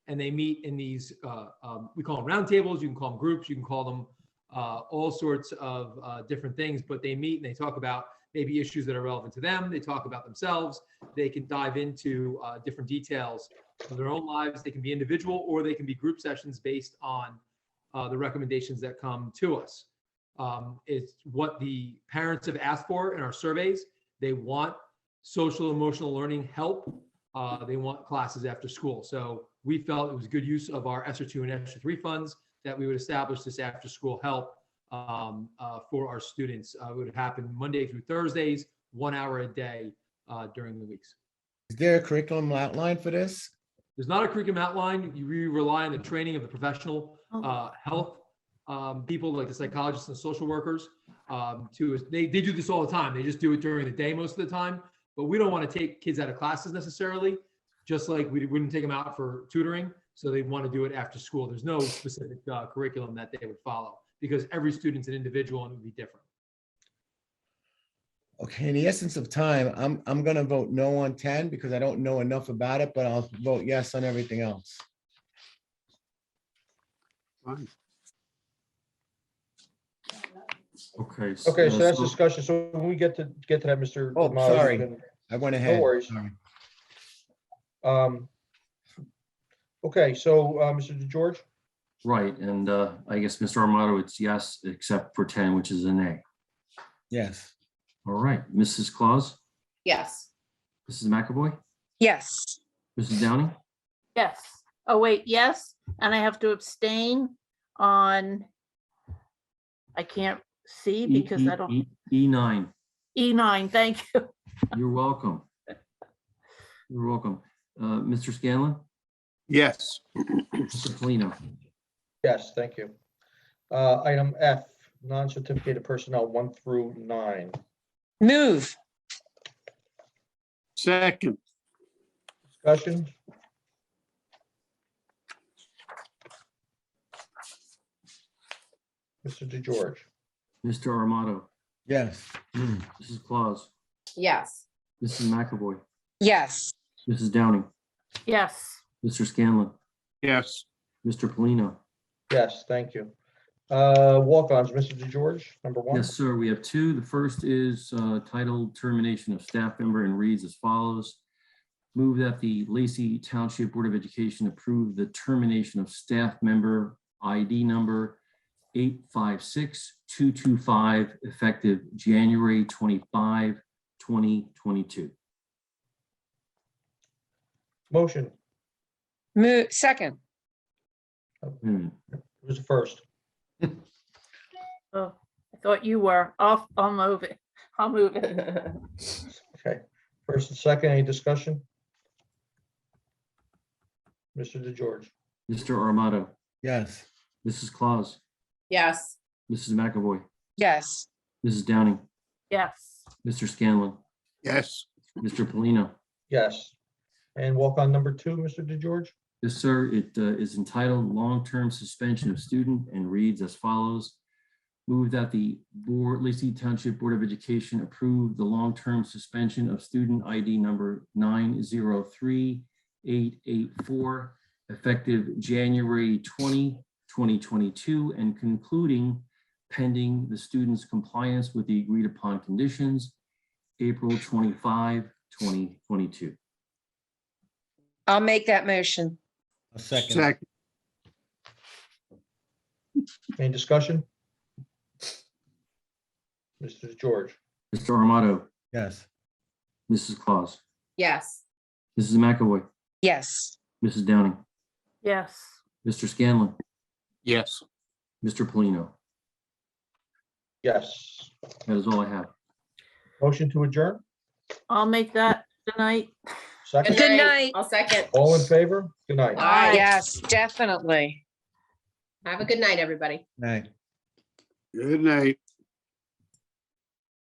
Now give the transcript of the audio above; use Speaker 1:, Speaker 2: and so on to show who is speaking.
Speaker 1: and they meet in these, uh, um, we call them roundtables, you can call them groups, you can call them uh, all sorts of uh, different things, but they meet and they talk about maybe issues that are relevant to them, they talk about themselves, they can dive into uh, different details of their own lives, they can be individual or they can be group sessions based on uh, the recommendations that come to us. Um, It's what the parents have asked for in our surveys. They want social emotional learning help. Uh, They want classes after school. So we felt it was good use of our ESER two and ESER three funds that we would establish this after-school help um, uh, for our students. Uh, It would happen Monday through Thursdays, one hour a day uh, during the weeks.
Speaker 2: Is there a curriculum outlined for this?
Speaker 1: There's not a curriculum outline. You really rely on the training of the professional
Speaker 3: Oh.
Speaker 1: uh, health um, people, like the psychologists and social workers. Um, to they, they do this all the time. They just do it during the day most of the time. But we don't want to take kids out of classes necessarily, just like we wouldn't take them out for tutoring. So they want to do it after school. There's no specific uh, curriculum that they would follow because every student's an individual and it would be different.
Speaker 2: Okay, in the essence of time, I'm, I'm gonna vote no on ten because I don't know enough about it, but I'll vote yes on everything else.
Speaker 4: Okay. s-
Speaker 5: Okay,
Speaker 4: uh,
Speaker 5: so that's discussion. So when we get to, get to that, Mr.
Speaker 2: Oh,
Speaker 5: Demoto,
Speaker 2: sorry.
Speaker 5: then,
Speaker 2: I went ahead.
Speaker 5: worries.
Speaker 2: Sorry.
Speaker 5: um, Okay, so, uh, Mr. George,
Speaker 4: Right, and uh, I guess, Mr. Armato, it's yes, except for 10, which is a nay.
Speaker 2: Yes,
Speaker 4: All right, Mrs. Claus,
Speaker 6: Yes.
Speaker 4: Mrs. McAvoy,
Speaker 7: Yes.
Speaker 4: Mrs. Downing,
Speaker 3: Yes. Oh, wait, yes, and I have to abstain on, I can't see
Speaker 4: E-
Speaker 3: because I don't,
Speaker 4: E- E- E9,
Speaker 3: E9, thank you.
Speaker 4: you're welcome. You're welcome. Uh, Mr. Scanlon,
Speaker 8: Yes.
Speaker 4: Mr. Polino,
Speaker 5: yes, thank you. Uh, Item F, non-certificated personnel, one through nine.
Speaker 7: Move.
Speaker 8: Second,
Speaker 5: Discussion? Mr. DeGeorge,
Speaker 4: Mr. Armato,
Speaker 2: yes,
Speaker 4: Mrs. Claus,
Speaker 6: Yes.
Speaker 4: Mrs. McAvoy,
Speaker 7: Yes.
Speaker 4: Mrs. Downing,
Speaker 3: Yes,
Speaker 4: Mr. Scanlon,
Speaker 8: yes.
Speaker 4: Mr. Polino.
Speaker 5: yes, thank you. Uh, Walk-ons, Mr. DeGeorge, number one.
Speaker 4: Yes, sir. We have two. The first is uh, titled Termination of Staff Member and reads as follows. Move that the Lacey Township Board of Education approve the termination of staff member ID number 856225 effective January 25, 2022.
Speaker 5: Motion,
Speaker 7: Move, second.
Speaker 4: Hmm,
Speaker 5: who's the first?
Speaker 3: oh, I thought you were. I'll, I'll move it. I'll move it.
Speaker 5: Okay, first and second, any discussion? Mr. DeGeorge,
Speaker 4: Mr. Armato,
Speaker 2: yes,
Speaker 4: Mrs. Claus,
Speaker 6: Yes.
Speaker 4: Mrs. McAvoy,
Speaker 7: Yes.
Speaker 4: Mrs. Downing,
Speaker 3: Yes,
Speaker 4: Mr. Scanlon,
Speaker 8: Yes,
Speaker 4: Mr. Polino.
Speaker 5: yes. And walk-on number two, Mr. DeGeorge,
Speaker 4: Yes, sir. It uh, is entitled Long-Term Suspension of Student and reads as follows. Move that the Board, Lacey Township Board of Education approve the long-term suspension of student ID number 903884 effective January 20, 2022, and concluding pending the student's compliance with the agreed-upon conditions, April 25, 2022.
Speaker 7: I'll make that motion.
Speaker 2: a second,
Speaker 8: second,
Speaker 5: any discussion? Mr. DeGeorge,
Speaker 4: Mr. Armato,
Speaker 2: yes,
Speaker 4: Mrs. Claus.
Speaker 6: Yes.
Speaker 4: Mrs. McAvoy,
Speaker 7: Yes.
Speaker 4: Mrs. Downing,
Speaker 3: yes,
Speaker 4: Mr. Scanlon,
Speaker 8: yes.
Speaker 4: Mr. Polino.
Speaker 5: yes.
Speaker 4: That is all I have.
Speaker 5: Motion to adjourn,
Speaker 3: I'll make that tonight.
Speaker 5: second,
Speaker 7: Good night.
Speaker 6: I'll second.
Speaker 5: all in favor? Good night.
Speaker 6: Aye.
Speaker 7: Yes, definitely.
Speaker 6: Have a good night, everybody.
Speaker 2: right.
Speaker 8: Good night.